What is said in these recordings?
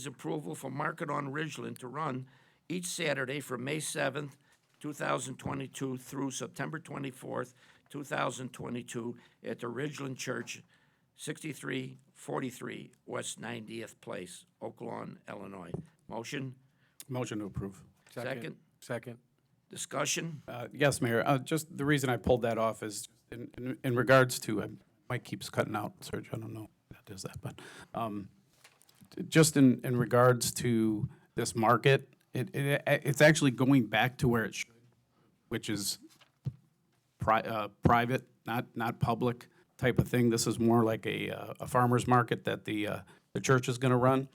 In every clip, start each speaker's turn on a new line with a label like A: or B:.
A: Committee's approval for Market on Ridgeland to run each Saturday from May 7th, 2022 through September 24th, 2022 at the Ridgeland Church, 6343 West 90th Place, Oak Lawn, Illinois. Motion?
B: Motion to approve.
A: Second.
C: Second.
A: Discussion?
B: Uh, Yes, Mayor, uh, just the reason I pulled that off is in- in in regards to, um, Mike keeps cutting out, Serge, I don't know if that does that, but um, t- just in, in regards to this market, it, it it's actually going back to where it should, which is pri- uh, private, not, not public type of thing. This is more like a, uh, a farmer's market that the, uh, the church is gonna run.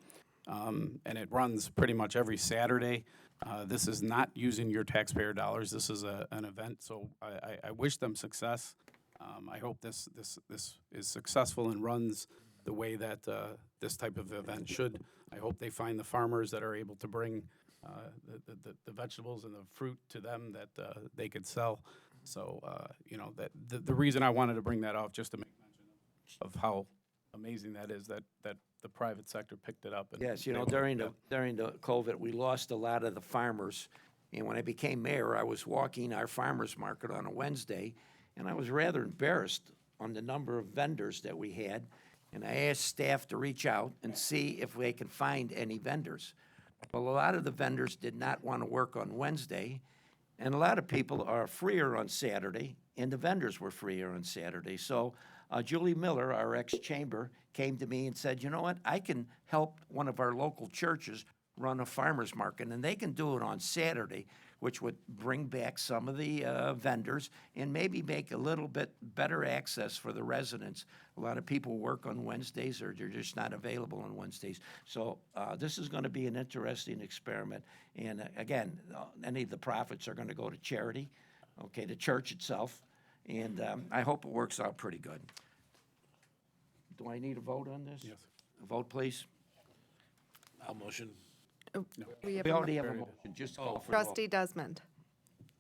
B: Um, and it runs pretty much every Saturday. Uh, this is not using your taxpayer dollars. This is a, an event, so I, I, I wish them success. Um, I hope this, this, this is successful and runs the way that, uh, this type of event should. I hope they find the farmers that are able to bring, uh, the- the, the, the vegetables and the fruit to them that, uh, they could sell. So, uh, you know, that, the, the reason I wanted to bring that off, just to make mention of how amazing that is, that, that the private sector picked it up. and
A: Yes, you
B: they
A: know,
B: were-
A: during the, during the COVID, we lost a lot of the farmers. And when I became mayor, I was walking our farmer's market on a Wednesday, and I was rather embarrassed on the number of vendors that we had. And I asked staff to reach out and see if they can find any vendors. Well, a lot of the vendors did not want to work on Wednesday, and a lot of people are freer on Saturday, and the vendors were freer on Saturday. So uh, Julie Miller, our ex-chamber, came to me and said, you know what, I can help one of our local churches run a farmer's market, and they can do it on Saturday, which would bring back some of the uh, vendors and maybe make a little bit better access for the residents. A lot of people work on Wednesdays, or they're just not available on Wednesdays. So uh, this is going to be an interesting experiment. And uh, again, uh, any of the profits are going to go to charity, okay, the church itself, and um, I hope it works out pretty good. Do I need a vote on this? Yes. A vote, please?
C: I'll motion.
D: We have
A: We
D: a mo-
A: already have a Oh. motion, just call for the vote.
D: trustee Desmond,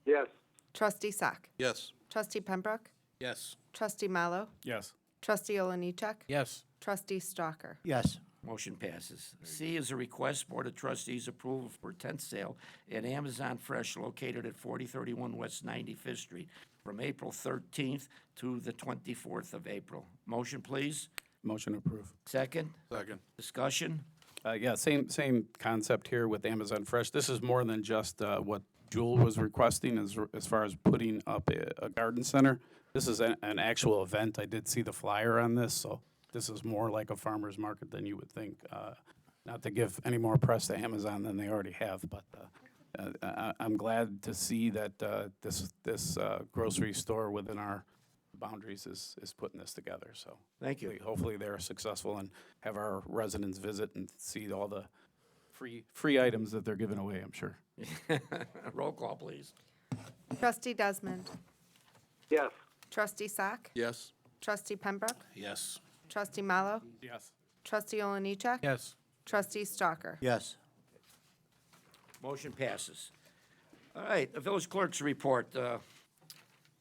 E: Yes.
D: trustee Sack,
C: Yes.
D: trustee Pembroke,
C: Yes.
D: trustee Mallow,
B: Yes.
D: trustee Oliniechek,
C: Yes.
D: trustee Stalker.
C: Yes.
A: Motion passes. C is a request Board of Trustees approval for tent sale at Amazon Fresh located at 4031 West 95th Street from April 13th to the 24th of April. Motion, please.
B: Motion to approve.
A: Second,
C: Second.
A: discussion.
B: Uh, yeah, same, same concept here with Amazon Fresh. This is more than just, uh, what Jewel was requesting as, as far as putting up a, a garden center. This is an, an actual event. I did see the flyer on this, so this is more like a farmer's market than you would think. Uh, not to give any more press to Amazon than they already have, but, uh, uh, I, I'm glad to see that, uh, this, this, uh, grocery store within our boundaries is, is putting this together, so.
A: Thank you.
B: hopefully- Hopefully they're successful and have our residents visit and see all the free, free items that they're giving away, I'm sure.
A: Roll call, please.
D: Trustee Desmond,
E: Yes.
D: trustee Sack,
C: Yes.
D: trustee Pembroke,
C: Yes.
D: trustee Mallow,
B: Yes.
D: trustee Oliniechek.
C: Yes.
D: Trustee Stalker.
C: Yes.
A: Motion passes. All right, the village clerk's report. uh,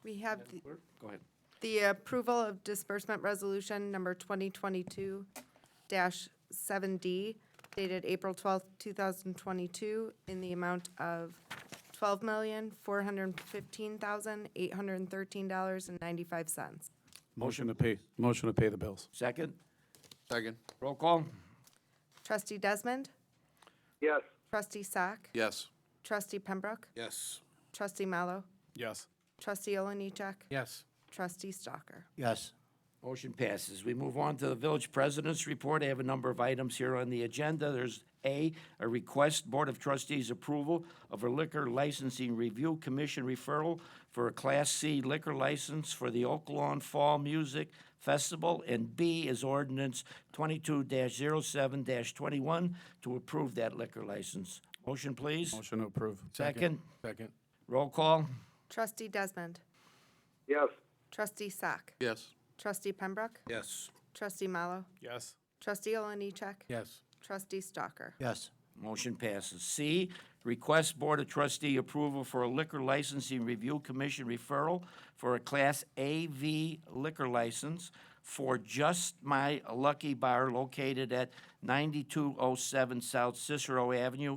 D: We have the-
A: Go ahead.
D: the approval of disbursement resolution number 2022-7D dated April 12th, 2022, in the amount of $12,415,813.95.
B: Motion to pay, motion to pay the bills.
A: Second,
C: Second.
A: roll call.
D: Trustee Desmond,
E: Yes.
D: trustee Sack,
C: Yes.
D: trustee Pembroke,
C: Yes.
D: trustee Mallow,
B: Yes.
D: trustee Oliniechek,
C: Yes.
D: trustee Stalker.
C: Yes.
A: Motion passes. We move on to the village president's report. I have a number of items here on the agenda. There's A, a request Board of Trustees approval of a liquor licensing review commission referral for a Class C liquor license for the Oak Lawn Fall Music Festival. And B is ordinance twenty-two 7 twenty-one to approve that liquor license. Motion, please.
B: Motion to approve.
A: Second,
C: Second.
A: roll call.
D: Trustee Desmond,
E: Yes.
D: trustee Sack,
C: Yes.
D: trustee Pembroke,
C: Yes.
D: trustee Mallow,
B: Yes.
D: Trustee Oliniechek.
C: Yes.
D: Trustee Stalker.
C: Yes.
A: Motion passes. C, request Board of Trustee approval for a liquor licensing review commission referral for a Class AV liquor license for Just My Lucky Bar located at 9207 South Cicero Avenue